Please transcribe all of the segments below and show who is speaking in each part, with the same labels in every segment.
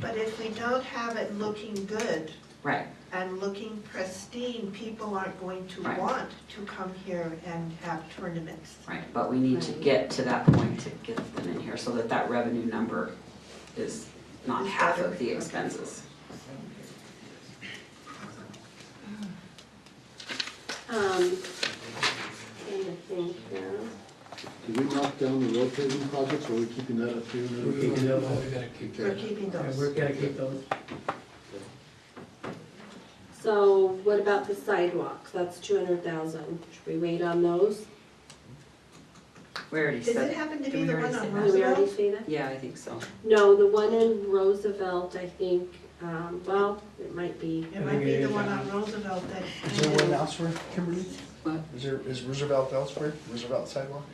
Speaker 1: But if we don't have it looking good
Speaker 2: Right,
Speaker 1: and looking pristine, people aren't going to
Speaker 2: Right.
Speaker 1: want to come here and have tournaments.
Speaker 2: right, but we need to get to that point to get them in here so that that revenue number is not half of the expenses.
Speaker 3: Um, trying to think here.
Speaker 4: Did we knock down the rotating projects, or are we keeping that up here?
Speaker 5: We're keeping them, we gotta keep
Speaker 1: We're
Speaker 5: them.
Speaker 1: keeping
Speaker 5: Yeah, we're
Speaker 1: those.
Speaker 5: gonna keep those.
Speaker 3: So what about the sidewalks? That's two hundred thousand. Should we wait on those?
Speaker 2: We already
Speaker 1: Does it
Speaker 2: said,
Speaker 1: happen to
Speaker 6: Did
Speaker 1: be
Speaker 6: we
Speaker 1: the one
Speaker 6: already say that?
Speaker 1: on
Speaker 3: Did we already
Speaker 1: Roosevelt?
Speaker 3: say that?
Speaker 2: yeah, I think so.
Speaker 3: No, the one in Roosevelt, I think, um, well, it might be.
Speaker 1: It might be the one on Roosevelt that.
Speaker 7: Is there one elsewhere, Kimberly?
Speaker 2: What?
Speaker 7: Is there, is Roosevelt elsewhere, Roosevelt sidewalk?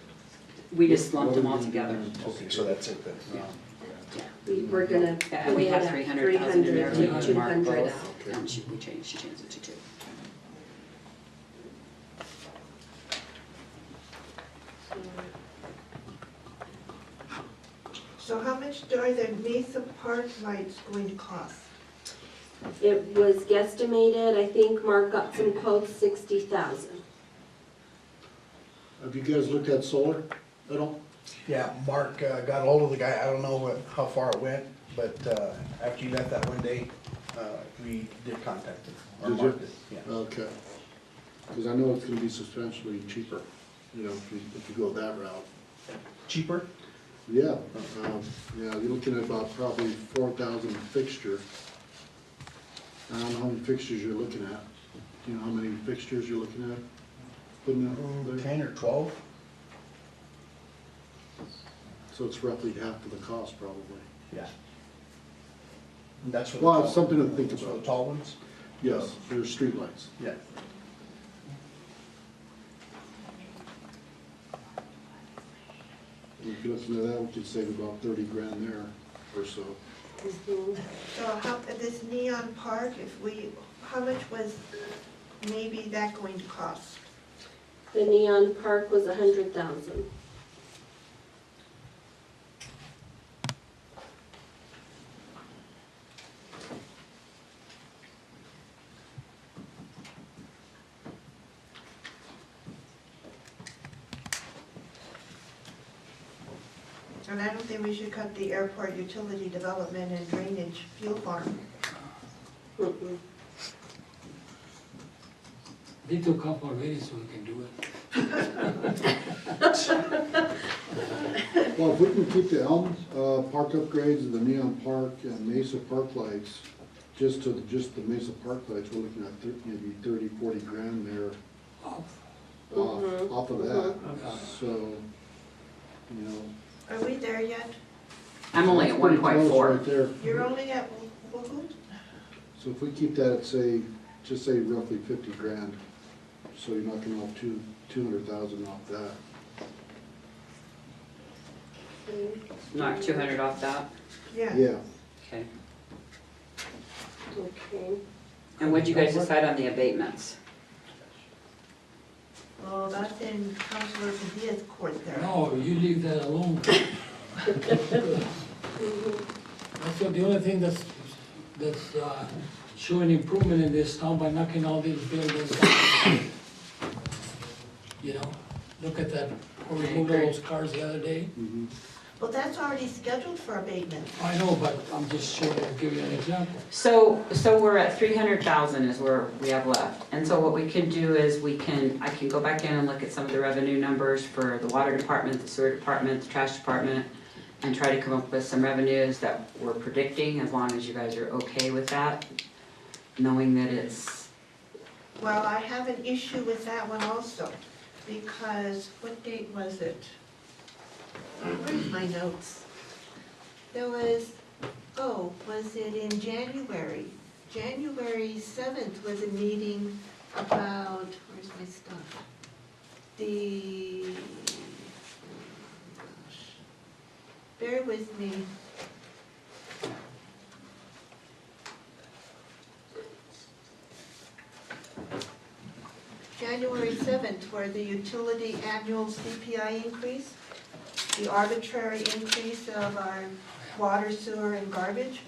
Speaker 2: We just lumped them all together.
Speaker 7: Okay, so that's it then.
Speaker 3: Yeah, We were gonna.
Speaker 2: Yeah, and we had three hundred thousand in there, we
Speaker 3: Three
Speaker 2: had
Speaker 3: hundred
Speaker 2: to
Speaker 3: to two
Speaker 2: mark
Speaker 3: hundred
Speaker 2: both, and she, we changed, she changed it to two.
Speaker 1: So how much are the Mesa Park lights going to cost?
Speaker 3: It was guesstimated, I think Mark got some quotes, sixty thousand.
Speaker 4: Have you guys looked at solar at all?
Speaker 7: Yeah, Mark uh, got hold of the guy, I don't know what, how far it went, but uh, after you left that one day, uh, we did contact him. or
Speaker 4: Did you? Uh,
Speaker 7: Mark did, Yeah.
Speaker 4: Okay. Because I know it's gonna be substantially cheaper, you know, if you, if you go that route.
Speaker 7: Cheaper?
Speaker 4: Yeah, um, yeah, you're looking at about probably four thousand fixture. I don't know how many fixtures you're looking at. Do you know how many fixtures you're looking at? Putting out there?
Speaker 7: Mm, Ten or twelve?
Speaker 4: So it's roughly half of the cost probably.
Speaker 7: Yeah. And that's for the.
Speaker 4: Well,
Speaker 7: tall-
Speaker 4: it's something to think
Speaker 7: that's for the
Speaker 4: about.
Speaker 7: Tall ones?
Speaker 4: Yes, there's streetlights.
Speaker 7: Yeah.
Speaker 4: If you listen to that, we could save about thirty grand there or so.
Speaker 1: So how, this neon park, if we, how much was maybe that going to cost?
Speaker 3: The neon park was a hundred thousand.
Speaker 1: And I don't think we should cut the airport utility development and drainage fuel farm.
Speaker 5: Need to come already so we can do it.
Speaker 4: Well, if we can keep the Elm, uh, Park upgrades and the neon park and Mesa Park lights, just to, just the Mesa Park lights, we're looking at thir- maybe thirty, forty grand there
Speaker 5: Off.
Speaker 4: off, off of that.
Speaker 5: Mhm.
Speaker 4: So, you know.
Speaker 1: Are we there yet?
Speaker 2: I'm only
Speaker 4: that's
Speaker 2: at one
Speaker 4: pretty
Speaker 2: point
Speaker 4: close
Speaker 2: four.
Speaker 4: Right there.
Speaker 1: You're only at Wogood?
Speaker 4: So if we keep that at say, just say roughly fifty grand, so you're not gonna have two, two hundred thousand off that.
Speaker 2: Knock two hundred off that,
Speaker 1: Yeah.
Speaker 4: Yeah,
Speaker 2: okay.
Speaker 3: Okay.
Speaker 2: And what'd you guys decide on the abatements?
Speaker 1: Well, that's in Counselor Padilla's court there.
Speaker 5: No, you leave that alone. That's the only thing that's, that's uh, showing improvement in this town by knocking all these buildings down. You know, look at that, we removed all those cars the other day.
Speaker 4: mhm.
Speaker 1: Well, that's already scheduled for abatement.
Speaker 5: I know, but I'm just showing, giving you an example.
Speaker 2: So, so we're at three hundred thousand is where we have left, and so what we can do is we can, I can go back in and look at some of the revenue numbers for the water department, the sewer department, the trash department, and try to come up with some revenues that we're predicting, as long as you guys are okay with that, knowing that it's,
Speaker 1: Well, I have an issue with that one also, because what date was it? Where's my notes? There was, oh, was it in January? January seventh was a meeting about, where's my stuff? The, oh bear with me. January 7th, where the utility annual CPI increase, the arbitrary increase of our water, sewer, and garbage,